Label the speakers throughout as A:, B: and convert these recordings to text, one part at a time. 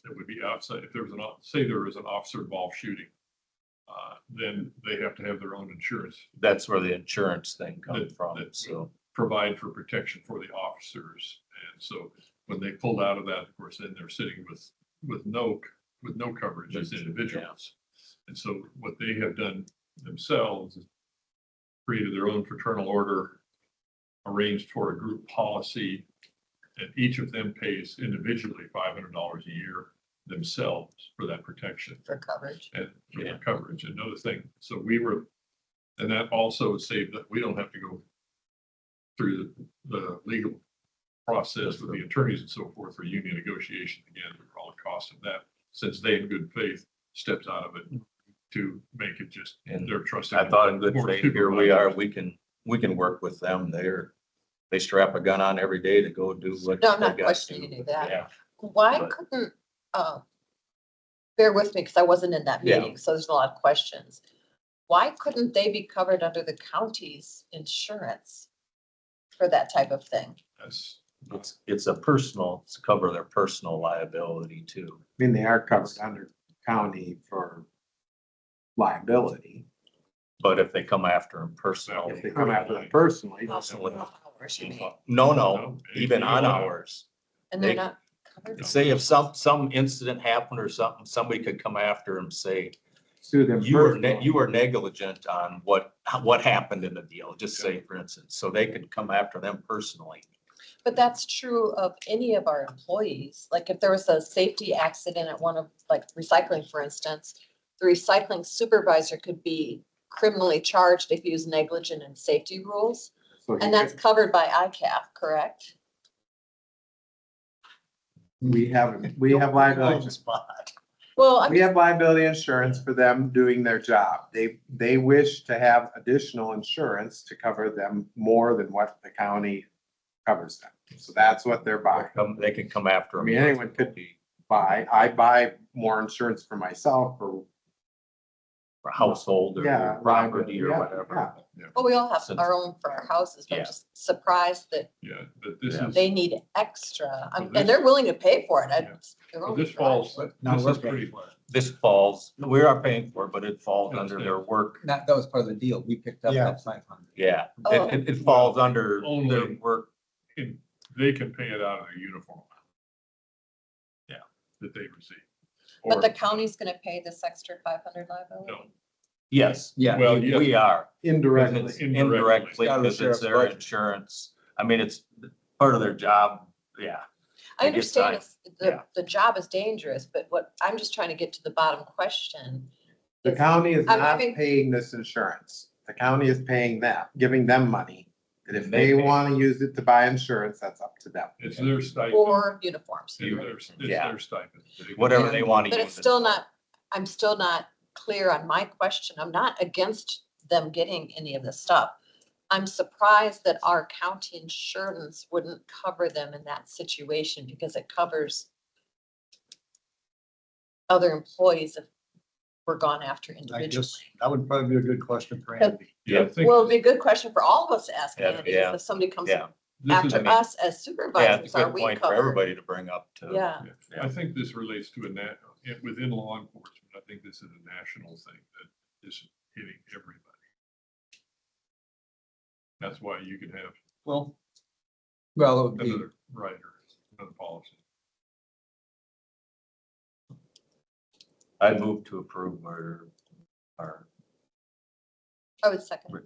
A: It uh, would be outside, if there was an, o- say there was an officer involved shooting, uh, then they have to have their own insurance,
B: That's where the insurance thing comes
A: That-
B: from,
A: that-
B: so.
A: provide for protection for the officers. And so when they pulled out of that, of course, then they're sitting with, with no, with no coverage as
B: Yeah.
A: individuals. And so what they have done themselves is created their own fraternal order, arranged for a group policy, and each of them pays individually five hundred dollars a year themselves for that protection
C: for coverage.
A: and for
B: Yeah.
A: their coverage. Another thing, so we were, and that also saved that we don't have to go through the, the legal process with the attorneys and so forth for union negotiation again, for all the cost of that, since they in good faith stepped out of it to make it just
B: And
A: their trusted.
B: I thought in good
A: board of
B: faith, here we are,
A: supervisors.
B: we can, we can work with them. They're, they strap a gun on every day to go do what.
C: No, I'm
B: they
C: not
B: got
C: questioning
B: to.
C: you that.
B: Yeah,
C: Why
B: But-
C: couldn't, uh, bear with me, because I wasn't in that
B: Yeah.
C: meeting, so there's a lot of questions. Why couldn't they be covered under the county's insurance for that type of thing?
A: That's-
B: it's, it's a personal, it's cover their personal liability too.
D: I mean, they are covered under county for liability.
B: But if they come after them personal.
D: If they come after them personally,
B: Personally.
C: Hours, you mean,
B: No, no,
A: No,
B: even
A: you
B: on
A: know.
B: hours.
C: And they're
B: They-
C: not covered?
B: Say if some, some incident happened or something, somebody could come after them, say,
D: sue them.
B: you were, ne-
D: personally.
B: you were negligent on what, what happened in the deal, just say for instance, so they could come after them personally.
C: But that's true of any of our employees. Like if there was a safety accident at one of, like recycling, for instance, the recycling supervisor could be criminally charged if he was negligent in safety rules.
D: So you
C: And that's
D: could-
C: covered by ICAP, correct?
D: We have, we have liability,
B: Spot.
C: Well, I
D: we
C: mean,
D: have liability insurance for them doing their job. They, they wish to have additional insurance to cover them more than what the county covers them. So that's what they're
B: They'll
D: buying.
B: come- They can come after
D: I
B: them.
D: mean, anyone could
B: be.
D: Buy, I buy more insurance for myself for,
B: For household
D: Yeah,
B: or property or
D: yeah,
B: whatever.
C: well, we all have
B: Since-
C: our own for our houses, but
B: Yeah.
C: I'm just surprised that
A: Yeah, but this
B: Yeah.
A: is,
C: they need extra. I'm-
A: this-
C: And they're willing to pay for it. I-
A: Yeah.
C: they're
A: well,
C: only
A: this falls,
C: driving.
E: Now
A: this
E: we're
A: is pretty flat.
B: This falls, we are paying for it, but it falls under their work,
E: That, that was part of the deal. We picked up
D: Yeah.
E: that five hundred.
B: yeah.
C: Oh.
B: It, it, it falls under
A: Only-
B: their work,
A: And They can pay it out of their uniform. Yeah, that they receive.
C: But
A: Or-
C: the county's gonna pay this extra five hundred liability?
B: yes,
E: Yeah.
A: Well, yeah.
B: we are.
D: indirectly.
B: It's
A: Indirectly.
B: Indirectly,
E: Out of the
B: because it's
E: sheriff's
B: their
E: budget.
B: insurance. I mean, it's part of their job, yeah. I
C: I
B: guess
C: understand
B: I-
C: it's, the,
B: yeah.
C: the job is dangerous, but what, I'm just trying to get to the bottom question.
D: The county is
C: I'm
D: not
C: having-
D: paying this insurance. The county is paying them, giving them money. And if
B: And they
D: they
B: pay.
D: want to use it to buy insurance, that's up to them.
A: It's their stipend.
C: Or uniforms.
A: It's their, it's
B: Yeah.
A: their stipend. They-
B: Whatever they want to
C: But
B: use.
C: it's
B: it
C: still
B: for.
C: not, I'm still not clear on my question. I'm not against them getting any of this stuff. I'm surprised that our county insurance wouldn't cover them in that situation because it covers other employees if we're gone after
E: I
C: individually.
E: guess that would probably be a good question for Andy.
A: Yeah, I think
C: Well, it'd be a good question for all of us to ask
B: Yeah,
C: Andy,
B: yeah,
C: is if somebody comes
B: Yeah,
A: this is,
B: I
C: after
B: mean-
C: us as
B: yeah, it's
C: supervisors,
B: a
C: are
B: good
C: we
B: point for
C: covered?
B: everybody to bring up too.
C: Yeah,
A: I think this relates to a nat, it- within law enforcement, I think this is a national thing that is hitting everybody. That's why you can have
E: Well. Well, it would be,
A: another rider, another policy.
B: I move to approve our, our.
C: I would second.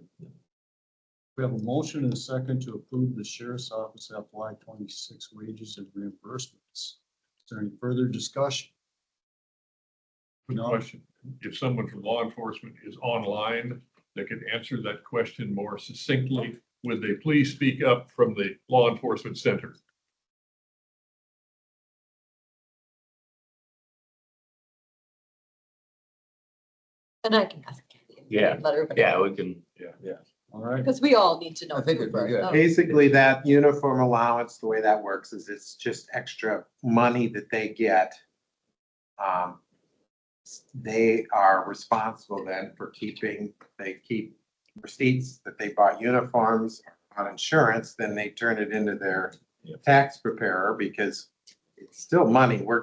E: we have a motion and a second to approve the sheriff's office FY twenty-six wages and reimbursements. Is there any further discussion?
A: Good
E: No.
A: question. If someone from law enforcement is online, that could answer that question more succinctly. Would they please speak up from the law enforcement center?
C: And I can ask. Andy.
B: Yeah,
C: Let everybody.
B: Yeah, we can,
E: All right.
C: Because we all need to know.
E: I think it'd be
C: too, right?
E: good.
C: Oh,
D: Basically, that uniform allowance, the way that works is it's just extra money that they get. Um, They are responsible then for keeping, they keep receipts that they bought uniforms on insurance, then they turn it into their
B: Yep.
D: tax preparer because it's still money we're